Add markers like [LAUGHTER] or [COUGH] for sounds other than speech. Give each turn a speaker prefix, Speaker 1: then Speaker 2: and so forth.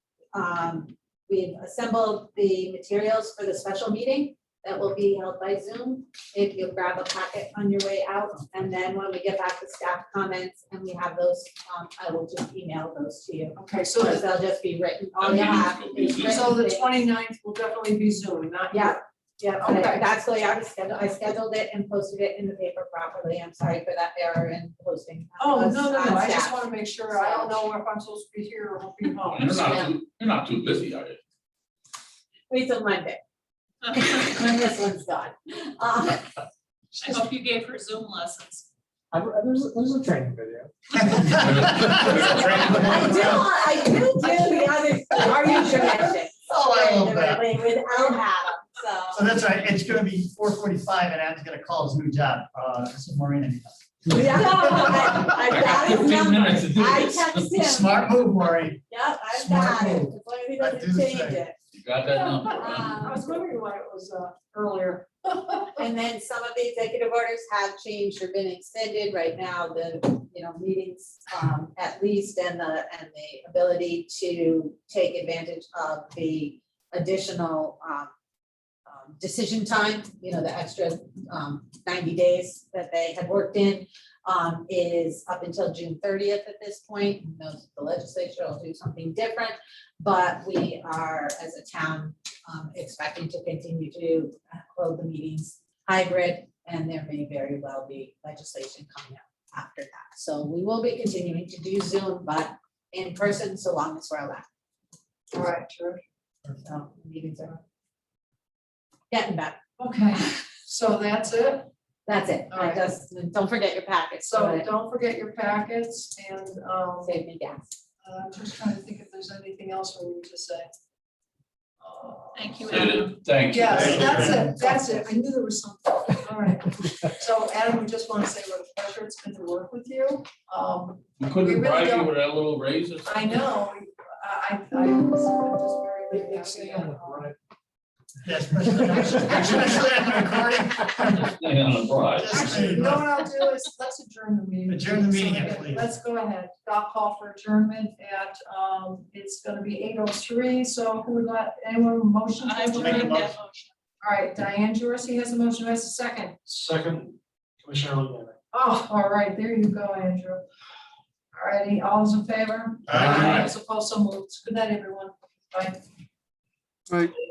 Speaker 1: Um, We've assembled the materials for the special meeting that will be held by Zoom. If you grab a packet on your way out, and then when we get back to staff comments and we have those, um, I will just email those to you.
Speaker 2: Okay, so,
Speaker 1: Because
Speaker 2: the-
Speaker 1: they'll just be written, all
Speaker 2: Oh,
Speaker 3: That
Speaker 1: you
Speaker 3: meeting's
Speaker 1: have
Speaker 3: gonna be
Speaker 1: is
Speaker 3: Zoom.
Speaker 1: written.
Speaker 2: so the
Speaker 1: things.
Speaker 2: 29th will definitely be Zoom, not.
Speaker 1: Yeah, yeah,
Speaker 2: Okay.
Speaker 1: okay, that's the way I was scheduled, I scheduled it and posted it in the paper properly, I'm sorry for that error in posting.
Speaker 2: Oh,
Speaker 1: Us
Speaker 2: no, no,
Speaker 1: on
Speaker 2: no, I just
Speaker 1: staff.
Speaker 2: wanna make sure, I don't know if I'm supposed to be here or will be home.
Speaker 3: You're not too, you're not too busy, are you?
Speaker 1: Wait till
Speaker 2: [LAUGHS]
Speaker 1: Monday,
Speaker 4: I
Speaker 1: when this one's done. Uh,
Speaker 4: hope you gave her Zoom lessons.
Speaker 5: I, I- there's, a- there's a training video.
Speaker 1: I do, I do do the other, [LAUGHS] are you Jamaican?
Speaker 6: Oh, I love that.
Speaker 1: With Al Adam, so.
Speaker 6: So that's right, it's gonna be four forty-five and Adam's gonna call his new job, uh, this is Maureen. anytime.
Speaker 1: [LAUGHS] Yeah, I-
Speaker 3: I
Speaker 1: I've
Speaker 3: got
Speaker 1: got his
Speaker 3: fifteen
Speaker 1: number,
Speaker 3: minutes to do
Speaker 1: I
Speaker 3: this.
Speaker 1: text him,
Speaker 6: Smart move, Maureen.
Speaker 1: yep, I've
Speaker 6: Smart
Speaker 1: got it, as
Speaker 6: move.
Speaker 1: long as he
Speaker 6: I do
Speaker 1: doesn't
Speaker 6: the
Speaker 1: change
Speaker 6: same.
Speaker 1: it. Um,
Speaker 3: You got that number, right?
Speaker 2: I was wondering why it was, uh, earlier.
Speaker 1: And then some of the executive orders have changed or been extended. Right now, the, you know, meetings, um, at least and the, and the ability to take advantage of the additional, um, um, decision time, you know, the extra, um, ninety days that they had worked in, um, is up until June thirtieth at this point. Who knows if the legislature will do something different, but we are, as a town, um, expecting to continue to uh, hold the meetings hybrid, and there may very well be legislation coming up after that. So we will be continuing to do Zoom, but in person, so long as we're allowed.
Speaker 2: All right, sure.
Speaker 1: So meetings are getting better.
Speaker 2: Okay, so that's it.
Speaker 1: That's it.
Speaker 2: All
Speaker 1: I
Speaker 2: right.
Speaker 1: just, don't forget your packets.
Speaker 2: So
Speaker 1: but
Speaker 2: don't forget your packets and, um,
Speaker 1: Save me gas.
Speaker 2: I'm just trying to think if there's anything else we need to say. Uh,
Speaker 4: Thank you,
Speaker 3: Say
Speaker 4: Adam.
Speaker 3: that- Thank you.
Speaker 2: Yes,
Speaker 6: Thank you.
Speaker 2: that's it, that's it. I knew there was something. All right. So Adam, we just want to say what a pleasure it's been to work with you. Um,
Speaker 3: We
Speaker 2: We
Speaker 3: couldn't
Speaker 2: really
Speaker 3: bribe you
Speaker 2: don't-
Speaker 3: with that little raise or
Speaker 2: I
Speaker 3: something?
Speaker 2: know, I, I, I'm just very, very happy.
Speaker 6: Yes, especially, especially on recording.
Speaker 3: Yeah, on a bribe.
Speaker 2: Actually, you know what I'll do is, let's adjourn the meeting.
Speaker 6: Adjourn the meeting,
Speaker 2: So,
Speaker 6: yeah, please.
Speaker 2: Let's go ahead, I'll call for adjournment at, um, it's gonna be eight oh three, so who would like, anyone motion? to
Speaker 4: I will
Speaker 6: Make a
Speaker 4: make that
Speaker 2: adjourn?
Speaker 6: motion.
Speaker 4: motion.
Speaker 2: All right, Diane Jorcy has a motion, has a second.
Speaker 5: Second, Commissioner Logan.
Speaker 2: Oh, all right, there you go, Andrew. All righty, all those in favor?
Speaker 6: Aye.
Speaker 2: Those opposed, so moved. Good night, everyone. Bye.